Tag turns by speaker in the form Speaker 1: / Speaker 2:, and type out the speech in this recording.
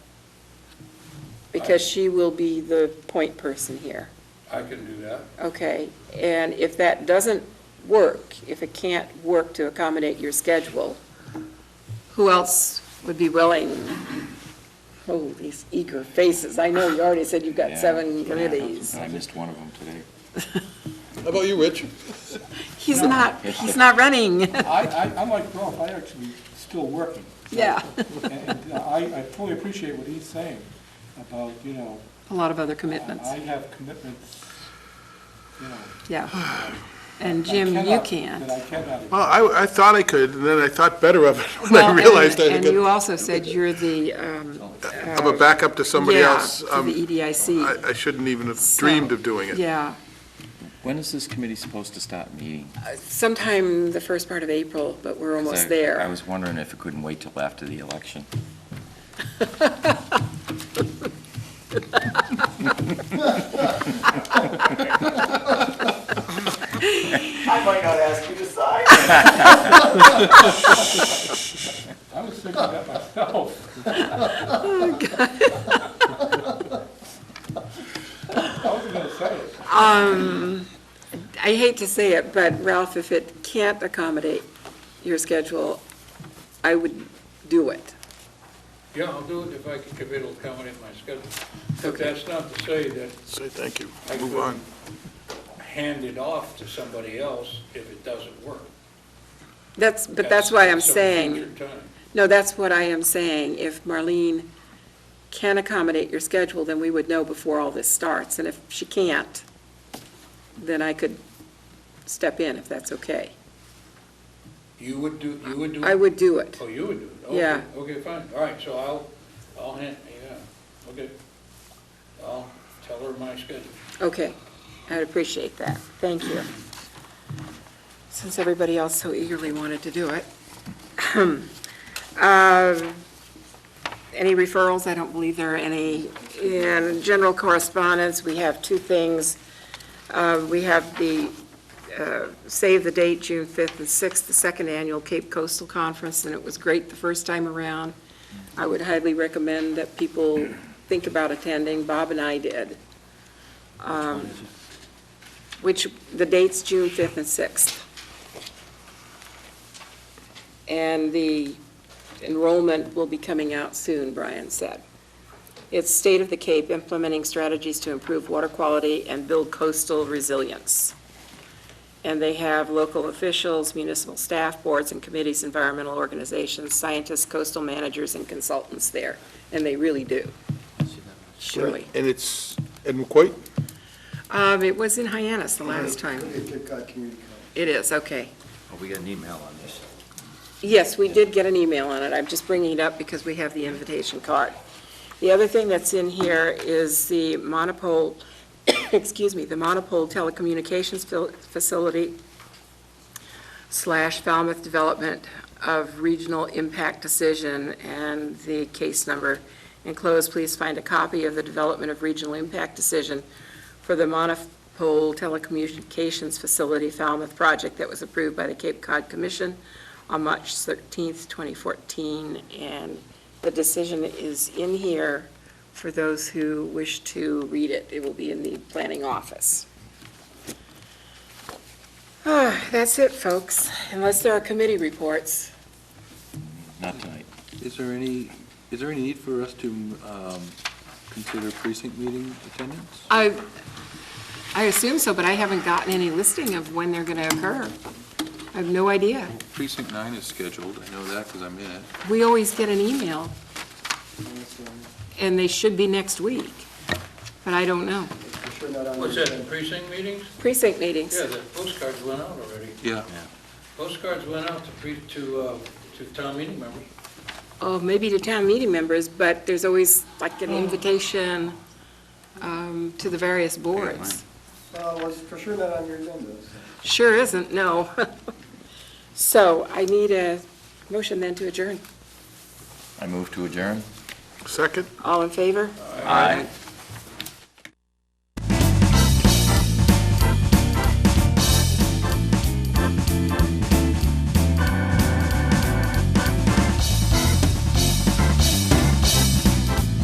Speaker 1: because she will be the point person here,
Speaker 2: I can do that.
Speaker 1: okay? And if that doesn't work, if it can't work to accommodate your schedule, who else would be willing? Oh, these eager faces, I know you already said you've got
Speaker 3: Yeah.
Speaker 1: seven
Speaker 3: Yeah.
Speaker 1: committees.
Speaker 3: I missed one of them today.
Speaker 4: How about you, Rich?
Speaker 1: He's not, he's not running,
Speaker 5: I, I, I'm like Ralph, I actually still working.
Speaker 1: yeah.
Speaker 5: And uh, I, I fully appreciate what he's saying about, you know,
Speaker 1: A lot of other
Speaker 5: I
Speaker 1: commitments,
Speaker 5: I have commitments, you know.
Speaker 1: yeah. And
Speaker 5: I
Speaker 1: Jim, you
Speaker 5: cannot-
Speaker 1: can't.
Speaker 5: That I cannot.
Speaker 4: Well, I, I thought I could, and then I thought better of it when
Speaker 1: Well,
Speaker 4: I
Speaker 1: and-
Speaker 4: realized I
Speaker 1: And you
Speaker 4: could,
Speaker 1: also said you're the, um,
Speaker 4: I'm a backup to somebody
Speaker 1: yeah,
Speaker 4: else.
Speaker 1: to
Speaker 4: Um,
Speaker 1: the E EDIC.
Speaker 4: I, I shouldn't even have
Speaker 1: So-
Speaker 4: dreamed of doing it.
Speaker 1: Yeah,
Speaker 3: When is this committee supposed to stop meeting? 'Cause
Speaker 1: sometime the first part of April, but we're
Speaker 3: I-
Speaker 1: almost
Speaker 3: I
Speaker 1: there.
Speaker 3: was wondering if it couldn't wait till after the election.
Speaker 6: I might not ask you to sign.
Speaker 5: I was thinking that myself. I wasn't gonna say it.
Speaker 1: I hate to say it, but Ralph, if it can't accommodate your schedule, I would do it.
Speaker 2: Yeah, I'll do it if I can commit, it'll come in my schedule. But
Speaker 1: Okay.
Speaker 2: that's not to say that
Speaker 4: Say thank you,
Speaker 2: I
Speaker 4: move on.
Speaker 2: couldn't hand it off to somebody else if it doesn't work.
Speaker 1: That's, but that's why I'm
Speaker 2: some
Speaker 1: saying,
Speaker 2: future time.
Speaker 1: no, that's what I am saying. If Marlene can accommodate your schedule, then we would know before all this starts. And if she can't, then I could step in if that's okay.
Speaker 2: You would do, you would do?
Speaker 1: I
Speaker 2: it?
Speaker 1: would do it.
Speaker 2: Oh, you would do it? Okay,
Speaker 1: Yeah.
Speaker 2: Okay, fine, all right, so I'll, I'll hand, yeah, okay. I'll tell her my schedule.
Speaker 1: Okay, I'd appreciate that. Thank you. Since everybody else so eagerly wanted to do it. Um, Any referrals? I don't believe there are any. In general correspondence, we have two things. Uh, We have the, uh, save the date, June 5th and 6th, the second annual Cape Coastal Conference, and it was great the first time around. I would highly recommend that people think about attending. Bob and I did which, the date's June 5th and 6th. And the enrollment will be coming out soon, Brian said. It's State of the Cape implementing strategies to improve water quality and build coastal resilience. And they have local officials, municipal staff, boards and committees, environmental organizations, scientists, coastal managers, and consultants there, and they really do. Surely.
Speaker 4: And it's, and quite,
Speaker 1: Um, It was in Hyannis the last time. It is, okay.
Speaker 6: Oh, We got an email on this.
Speaker 1: Yes, we did get an email on it. I'm just bringing it up because we have the invitation card. The other thing that's in here is the monopole, excuse me, the monopole telecommunications fil- facility slash Falmouth Development of Regional Impact Decision and the case number. Enclosed, please find a copy of the Development of Regional Impact Decision for the monopole telecommunications facility Falmouth project that was approved by the Cape Cod Commission on March 13th, 2014, and the decision is in here for those who wish to read it. It will be in the planning office. Ah, That's it, folks, unless there are committee reports.
Speaker 3: Not tonight.
Speaker 7: Is there any, is there any need for us to um, consider precinct meeting attendance?
Speaker 1: I, I assume so, but I haven't gotten any listing of when they're going to occur. I have no idea.
Speaker 7: Precinct nine is scheduled, I know that because I'm in it.
Speaker 1: We always get an email, and they should be next week, but I don't know.
Speaker 2: What's that, precinct meetings?
Speaker 1: Precinct meetings.
Speaker 2: Yeah, the postcards went out already.
Speaker 7: Yeah.
Speaker 2: Postcards went out to pre, to, uh, to town meeting members.
Speaker 1: Oh, maybe to town meeting members, but there's always like an invitation um, to the various boards.
Speaker 8: Well, it Uh, was for sure not on your agenda, so.
Speaker 1: Sure isn't, no. So I need a motion then to adjourn.
Speaker 3: I move to adjourn.
Speaker 4: second?
Speaker 1: All in favor?
Speaker 3: Aye.